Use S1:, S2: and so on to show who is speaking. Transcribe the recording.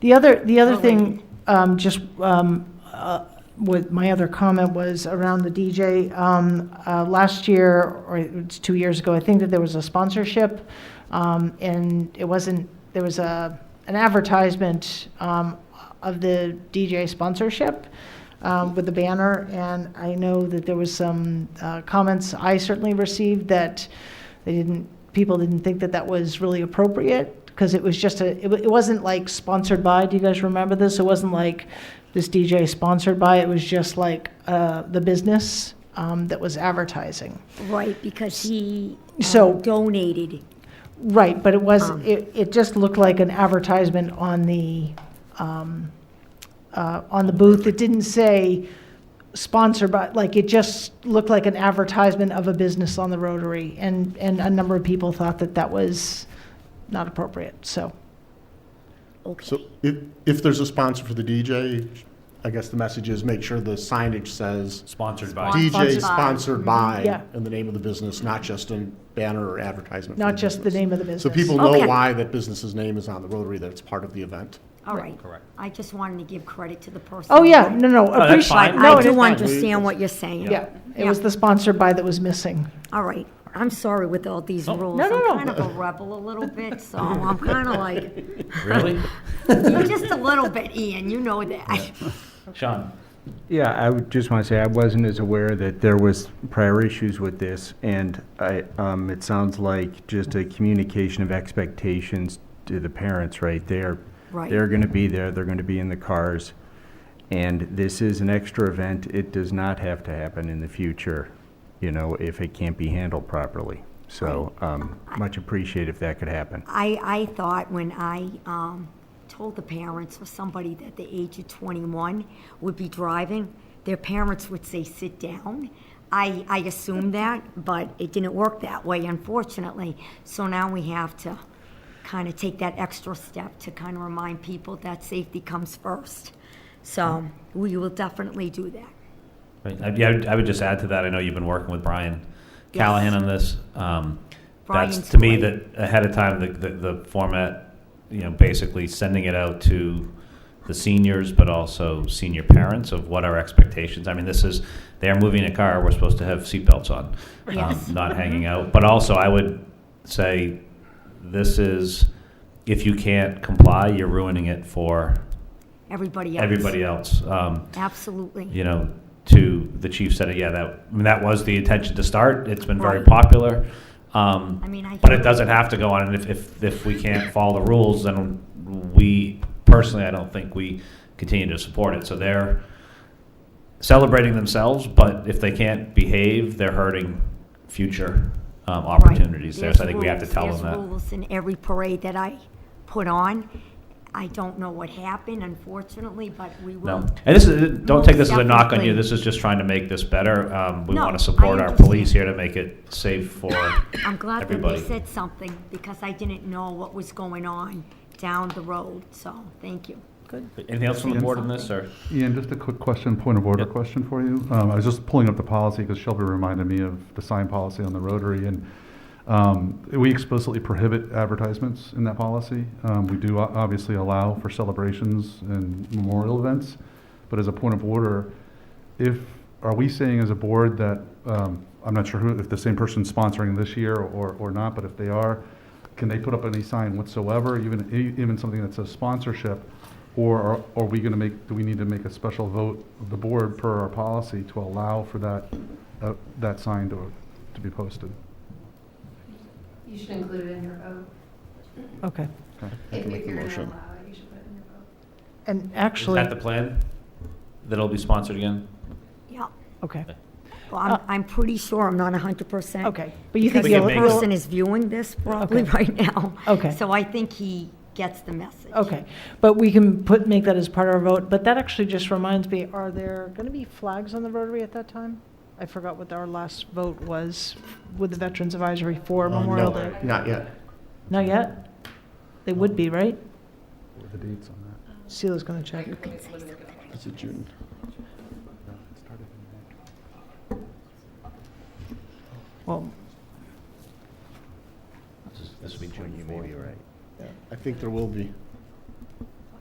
S1: The other, the other
S2: Oh,
S1: thing, um, just, um, uh, with, my other comment was around the DJ. Um, uh, last year, or it's two years ago, I think that there was a sponsorship, um, and it wasn't, there was a, an advertisement, um, of the DJ sponsorship, um, with the banner, and I know that there was some, uh, comments I certainly received that they didn't, people didn't think that that was really appropriate, because it was just a, it, wa- it wasn't like sponsored by, do you guys remember this? It wasn't like this DJ sponsored by, it was just like, uh, the business, um, that was advertising.
S2: Right, because he uh,
S1: So-
S2: donated.
S1: Right, but it was,
S2: Um.
S1: it, it just looked like an advertisement on the, um, uh, on the booth. It didn't say sponsored by, like, it just looked like an advertisement of a business on the Rotary. And, and a number of people thought that that was not appropriate, so.
S2: Okay,
S3: So if, if there's a sponsor for the DJ, I guess the message is make sure the signage says
S4: Sponsored
S5: Spon-
S4: by.
S3: DJ
S5: Sponsored by.
S3: sponsored
S1: Yeah.
S3: by in the name of the business, not just a banner or advertisement. for
S1: Not just the
S3: business.
S1: name of the business.
S3: So people know
S2: Okay.
S3: why that business's name is on the Rotary, that it's part of the event.
S2: all right.
S4: Correct.
S2: I just wanted to give credit to the person.
S1: Oh, yeah, no, no,
S4: that's
S1: appreciate,
S4: fine.
S2: But
S1: no,
S2: I
S1: it is
S2: do
S1: fine.
S2: understand what you're saying.
S1: Yeah, it
S2: Yeah.
S1: was the sponsored by that was missing.
S2: All right, I'm sorry with all these rules.
S1: no, no, no.
S2: I'm kind of a rebel a little bit, so I'm kind of like,
S4: Really?
S2: you're just a little bit, Ian, you know that.
S4: Sean?
S6: Yeah, I would just want to say I wasn't as aware that there was prior issues with this, and I, um, it sounds like just a communication of expectations to the parents right there.
S2: Right.
S6: They're going to be there, they're going to be in the cars, and this is an extra event. It does not have to happen in the future, you know, if it can't be handled properly. So, um, much appreciated if that could happen.
S2: I, I thought when I um, told the parents or somebody that the age of 21 would be driving, their parents would say, sit down. I, I assumed that, but it didn't work that way, unfortunately. So now we have to kind of take that extra step to kind of remind people that safety comes first. So we will definitely do that.
S4: Right. I- Yeah, I would- I would just add to that, I know you've been working with Brian
S2: Yes.
S4: Callahan on this. Um,
S2: Brian's
S4: That's, to me, that
S2: great.
S4: ahead of time, the, the the format, you know, basically sending it out to the seniors, but also senior parents of what our expectations. I mean, this is, they are moving a car, we're supposed to have seatbelts on, um,
S2: Yes.
S4: not hanging out. But also, I would say, this is, if you can't comply, you're ruining it for
S2: Everybody else.
S4: everybody else. Um,
S2: Absolutely.
S4: you know, to the chief said, yeah, that, I mean, that was the intention to start. It's been very
S2: Right.
S4: popular.
S2: I
S4: Um,
S2: mean, I.
S4: but it doesn't have to go on. And if, if, if we can't follow the rules, then we, personally, I don't think we continue to support it. So they're celebrating themselves, but if they can't behave, they're hurting future, um,
S2: Right.
S4: opportunities there. So I
S2: There's
S4: think we have to
S2: rules-
S4: tell them
S2: There's
S4: that.
S2: rules in every parade that I put on. I don't know what happened, unfortunately, but we will.
S4: No, and this is, don't take this as a knock on
S2: Definitely.
S4: you, this is just trying to make this better. Um, we
S2: No,
S4: want
S2: I
S4: to support our
S2: understand.
S4: police here to make it safe for
S2: I'm glad that they
S4: everybody.
S2: said something, because I didn't know what was going on down the road, so, thank you.
S4: Anything else from the board on this, or?
S7: Ian, just a quick question, point of order
S4: Yep.
S7: question for you. Um, I was just pulling up the policy because Shelby reminded me of the sign policy on the Rotary, and um, we explicitly prohibit advertisements in that policy. Um, we do o- obviously allow for celebrations and memorial events, but as a point of order, if are we saying as a board that um, I'm not sure who, if the same person's sponsoring this year or or not, but if they are, can they put up any sign whatsoever, even, e- even something that says sponsorship? Or are- are we going to make, do we need to make a special vote of the board per our policy to allow for that, uh, that sign to, to be posted?
S5: You should include it in your vote.
S1: Okay.
S7: Okay.
S3: make
S5: If if
S3: the
S5: you're going to
S3: motion.
S5: allow it, you should put it in your vote.
S1: And
S4: Is
S1: actually,
S4: that the plan? That'll be sponsored again?
S2: Yeah,
S1: okay,
S2: well, I'm, I'm pretty sure, I'm not hundred percent.
S1: Uh, okay. But you think
S2: Because
S4: We can
S1: you'll,
S2: the
S4: make it-
S1: you'll-
S2: person is viewing this probably
S1: Okay.
S2: right now.
S1: Okay.
S2: So I think he gets the message.
S1: Okay, but we can put, make that as part of our vote, but that actually just reminds me, are there going to be flags on the Rotary at that time? I forgot what our last vote was with the Veterans Advisory for
S3: Uh, no,
S1: Memorial Day.
S3: Not yet.
S1: Not yet? They would be, right?
S7: What are the dates on that?
S1: Sheila's going to check.
S3: It's a June.
S1: Well,
S4: This will be June
S3: I think there will be.